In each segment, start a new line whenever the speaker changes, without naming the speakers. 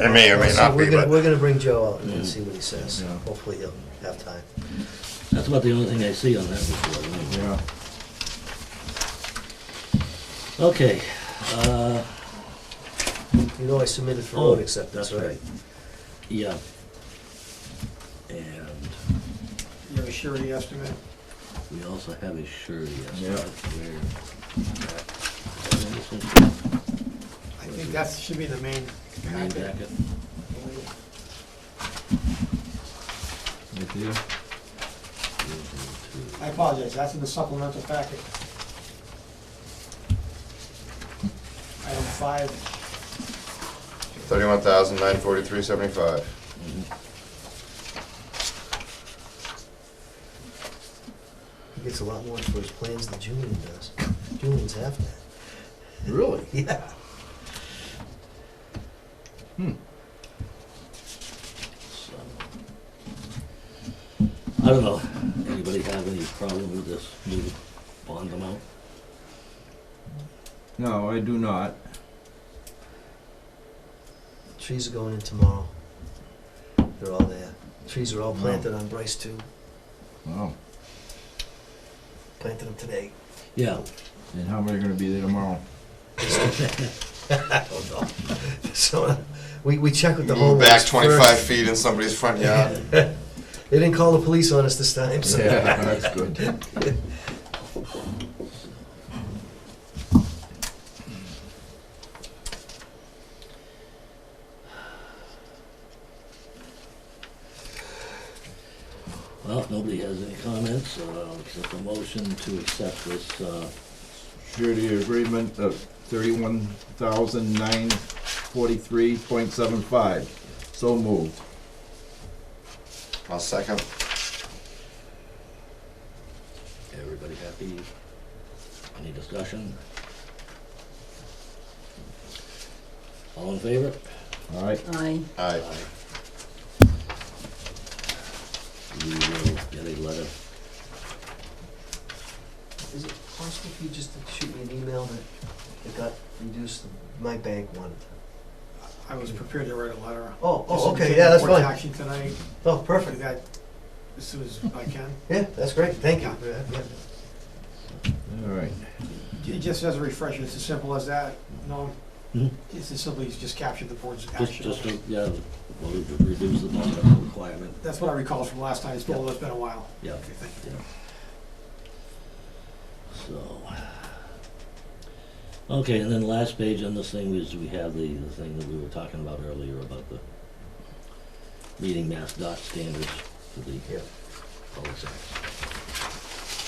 It may or may
So
not
we're
be,
gonna-
but-
We're gonna bring Joe out and see what he says.
Yeah.
Hopefully he'll have time.
That's about the only thing I see on that report. anyway.
Yeah.
Okay, uh,
You know I submitted for
Oh,
road acceptance,
that's
right?
yeah. And
You have a surety estimate?
we also have a surety
Yeah.
estimate. Where-
I think that should be the main
Main
packet.
packet.
Right there.
I apologize, that's in the supplemental packet. Item five,
Thirty-one thousand nine forty-three seventy-five.
He gets a lot more for his plans than Julian does. Julian's half that.
Really?
Yeah.
So, I don't know, anybody have any problem with this new bond amount?
No, I do not.
Trees are going in tomorrow. They're all there. Trees are all planted on Bryce too.
Wow.
Planted them today.
Yeah,
And how many are gonna be there tomorrow?
I don't know. Oh, So, uh, we, we checked with the
Move
homeowners
back
first.
twenty-five feet in somebody's front yard.
They didn't call the police on us this time, so.
Yeah, that's good.
well, if nobody has any comments, so I'll accept a motion to accept this, uh,
Surety agreement of thirty-one thousand nine forty-three point seven five. So moved.
I'll second.
everybody happy? Any discussion? All in favor?
All right.
Aye.
Aye.
We will get a letter.
Is it possible for you just to shoot me an email that it got reduced, my bank one?
I was prepared to write a letter.
Oh, oh,
Just to
okay,
take
yeah, that's
report to
fine.
Action tonight,
Oh,
do
perfect.
that as soon as I can.
Yeah, that's great, thank you. Yeah, yeah.
All right.
Ju- Just as a refresher, it's as simple as that, no,
Mm-hmm.
Mhm.
it's as simply as just capture the board's
Just,
action.
just, to- yeah, well, we could reduce the bond requirement.
That's what I recall from last time, it's been, it's been a while.
Yeah.
Okay, thank you.
So. Okay, and then last page on this thing is we have the, the thing that we were talking about earlier about the meeting mass dot standards for the
Yeah.
cul-de-sacs.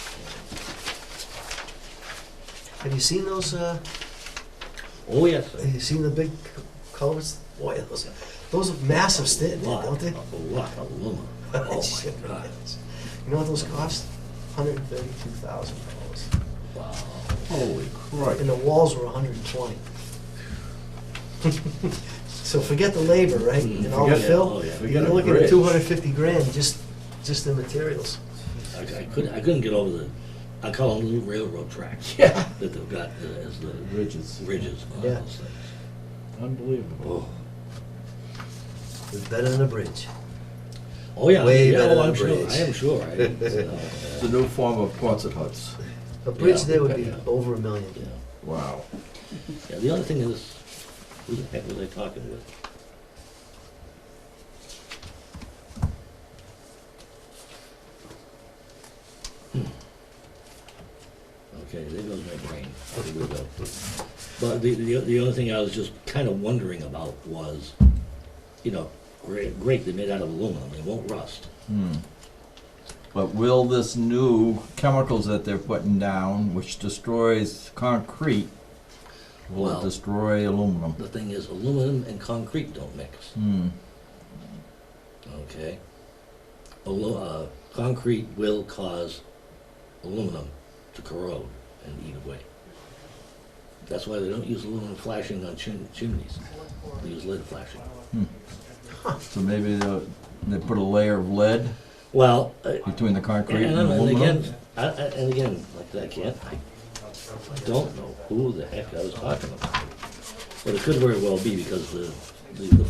Have you seen those, uh,
Oh, yes. sir.
have you seen the big cu- culverts? Boy, those, those are massive, sti-
Lot,
don't they?
A lot of aluminum. Oh,
Shit,
my God.
yes. You know what those cost? Hundred and thirty-two thousand dollars.
Wow.
Holy crap.
And the walls were hundred and twenty. So forget the labor, right, and all the
Forget-
fill?
Oh, yeah.
forget
You're
a
looking at
bridge.
two hundred and fifty grand, just, just in materials.
I, I couldn't, I couldn't get over the, I call them little railroad tracks. Yeah. That they've got uh, as the
Bridges.
ridges on
Yeah.
those things.
Unbelievable.
Oh,
It's better than a bridge.
oh, yeah.
Way
yeah,
better
oh,
than
I'm
a
sure,
bridge.
I am sure, I, uh,
It's a new form of Quonset huts.
A bridge there would be
yeah.
over a million.
yeah.
Wow.
Yeah, the other thing is, who the heck was I talking with? Hmm. Okay, there goes my brain. There we go. But the, the, the other thing I was just kind of wondering about was, you know, great, great, they're made out of aluminum, they won't rust.
Hmm. But will this new chemicals that they're putting down, which destroys concrete, will
Well-
it destroy aluminum?
The thing is, aluminum and concrete don't mix.
Hmm.
Okay. Alu- uh, concrete will cause aluminum to corrode and eat away. That's why they don't use aluminum flashing on chim- chimneys. They use lead flashing.
So maybe they they put a layer of lead
Well, uh,
between the concrete
and,
and
and
aluminum?
again, I, I, and again, like I can't, I don't know who the heck I was talking about. But it could very well be because the, the, the